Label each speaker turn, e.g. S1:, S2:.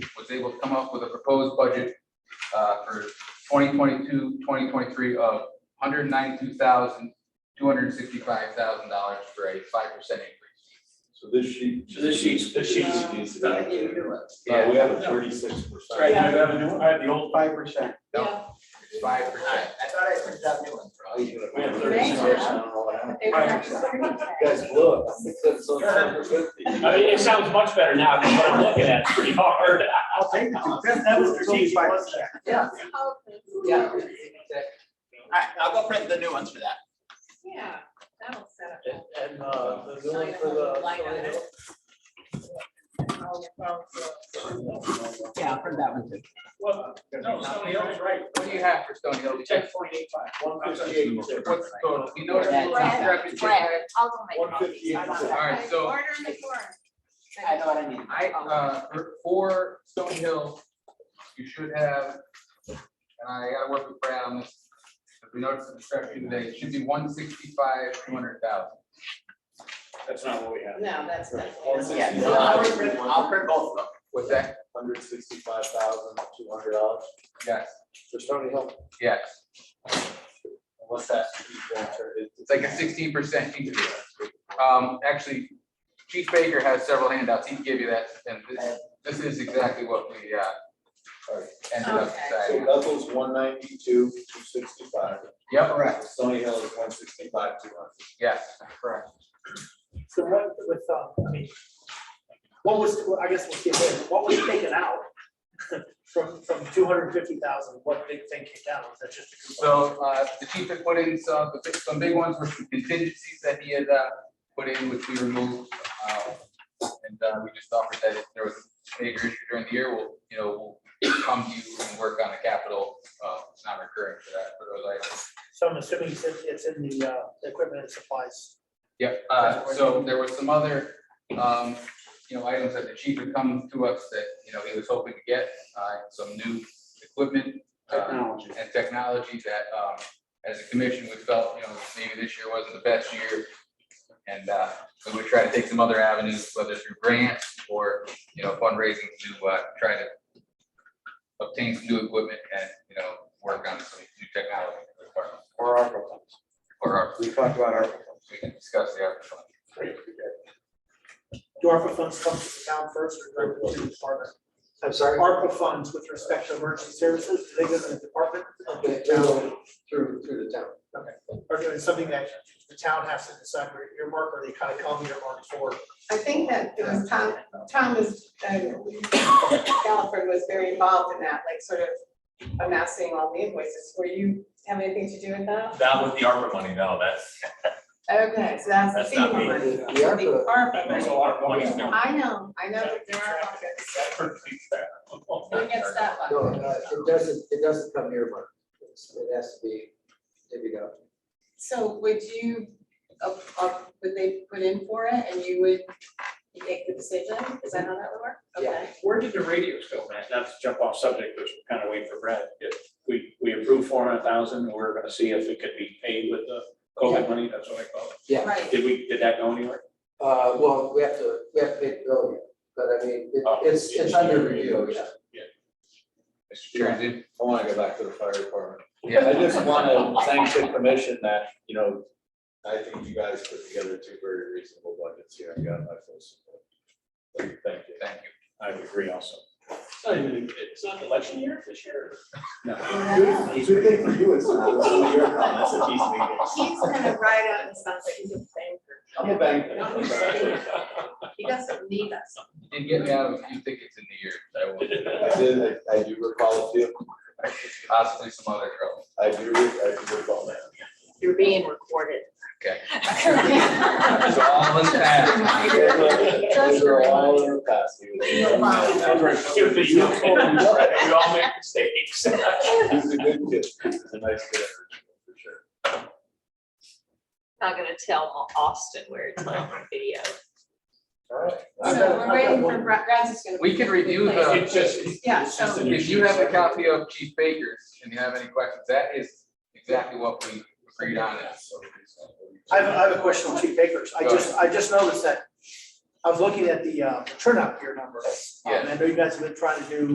S1: they will come up with a proposed budget uh, for 2022, 2023 of $192,265,000 for a 5% increase.
S2: So this sheet.
S3: So this sheet's- this sheet's-
S2: Needs to be
S3: I gave you
S2: updated.
S3: new ones.
S2: Uh, we have a thirty-six percent.
S3: Right,
S4: I have a new, I have the old five percent.
S1: No, it's 5%.
S3: Alright, I thought I printed out new ones.
S4: We
S5: Thank
S4: have thirty-six
S5: you.
S4: percent.
S2: Guys, look. So it's under fifty.
S4: I mean, it sounds much better now, because what I'm looking at is pretty hard. I'll take that That was strategic, wasn't it?
S3: Yeah,
S5: Yeah,
S3: yeah. Alright, I'll go print the new ones for that.
S5: yeah, that'll set up.
S6: And, and, uh, the new one for
S5: Light on
S6: the.
S5: it.
S3: Yeah, I'll print that one too.
S6: Well, no, somebody else, right,
S1: What do you have for Stony Hill?
S6: ten point eight five, one fifty-eight.
S1: What's the total? You know what
S3: Yeah,
S1: the
S3: it's
S1: last
S3: not-
S1: record is?
S5: I'll go
S2: One fifty-eight.
S1: All right, so-
S5: Order in the form.
S3: I know what I need.
S1: I, uh, for- for Stony Hill, you should have, and I gotta work with Brad on this. If we notice the description today, it should be one sixty-five, two hundred thousand.
S4: That's not what we have.
S5: No, that's
S2: One
S5: definitely.
S3: Yeah, so I'll print, I'll print both of
S1: What's that?
S2: Hundred sixty-five thousand, two hundred dollars
S1: Yes,
S2: for Stony Hill.
S1: yes.
S2: What's that?
S1: It's like a sixteen percent increase. Um, actually, Chief Baker has several handouts. He can give you that, and this, this is exactly what we, uh, ended up
S5: Okay.
S2: So
S1: deciding.
S2: Bethel's one ninety-two, two sixty-five.
S1: Yep,
S2: Correct. Stony Hill is one sixty-five, two hundred.
S1: yes, correct.
S6: So what with, um, I mean, what was, well, I guess we'll see later, what was taken out from, from two hundred fifty thousand, what big thing kicked out, was that just a?
S1: So uh, the chief had put in some, the big- some big ones were some contingencies that he had uh, put in, which we removed. uh, And uh, we just offered that if there was a major issue during the year, we'll, you know, we'll come to you and work on a capital. uh, It's not recurring for that, for those items.
S6: So I'm assuming it's, it's in the, uh, equipment and supplies.
S1: Yep, uh, so there was some other, um, you know, items that the chief had come to us that, you know, he was hoping to get, uh, some new equipment. uh, and technology that, um, as a commission, we felt, you know, maybe this year wasn't the best year. And, uh, we would try to take some other avenues, whether through grants or, you know, fundraising to, uh, try to obtain some new equipment and, you know, work on some new technology. for the department,
S2: Or ARPA funds.
S1: Or our,
S2: We talked about ARPA funds.
S1: we can discuss the ARPA fund.
S6: Do ARPA funds come to the town first or directly to the department?
S7: I'm sorry?
S6: ARPA funds with respect to emergency services, do they go to the department?
S7: Okay, through, through, through the town.
S6: Or is it something that the town has to decide where your mark, or they kind of come your mark for?
S5: I think that it was Tom, Tom is, uh, Galliford was very involved in that, like sort of amassing all the invoices. Were you, have anything to do with that?
S8: Not with the ARPA money, no, that's,
S5: Okay, so that's
S8: That's
S5: the
S8: not
S5: FEMA
S8: me.
S5: money.
S7: The
S5: The
S7: ARPA,
S5: ARPA
S8: that's a
S5: money.
S8: lot of money. no.
S5: I know, I know that there are pockets.
S8: That perfectly fair.
S5: Who gets that
S7: no,
S5: one?
S7: uh, it doesn't, it doesn't come near mark. It's- It has to be, there we go.
S5: So would you, uh, uh, would they put in for it and you would make the decision? Is that how that would work? Okay.
S4: Where did the radios go, Matt? Not to jump off subject, but we're kind of waiting for Brad. If We, we approved four hundred thousand, we're gonna see if it could be paid with the COVID money, that's what I call it.
S7: Yeah.
S5: Right,
S4: Did we, did that go anywhere?
S7: Uh, well, we have to, we have to pay the bill, yet, but I mean, it-
S4: Oh,
S7: it's, it's
S4: it's-
S7: under review, yeah.
S1: Mr. Chair, I did-
S2: I want to go back to the fire department.
S1: yeah,
S2: I just want to thank the commission that, you know, I think you guys put together two very reasonable budgets here. I got my full support. Thank you.
S1: thank you.
S4: I would agree also.
S6: It's not even, it's not election year this year.
S2: Good thing for you, it's not. Your comments, it's easy to get.
S5: he's gonna write out and sound like he's a banker.
S2: I'm a banker.
S5: Don't you say it. He doesn't need us.
S1: You Did get me out of a few tickets in the year, I will,
S2: I did, I I do recall a few.
S1: possibly some other trouble.
S2: I do, I do recall that.
S5: You're being recorded.
S1: Okay.
S5: Okay.
S1: So all in past.
S2: They were-
S5: Just
S2: they
S5: a
S2: were all in
S5: reminder.
S2: the past. He was-
S5: You're fine.
S4: Stupid, you know, We all make mistakes.
S2: He's a good kid. He's a nice kid, for sure.
S9: not gonna tell Austin where it's on video.
S2: All right.
S5: So we're waiting for, Brad Brad's just gonna.
S1: We can review the-
S4: It's just.
S5: Yeah,
S4: it's just
S5: so-
S4: a new
S1: If you have a
S4: sheet.
S1: copy of Chief Baker's and you have any questions, that is exactly what we agreed on.
S6: I have, I have a question on Chief Baker's. I just, I just noticed that, I was looking at the, uh, turnout gear numbers. Um, I know you guys have been trying to do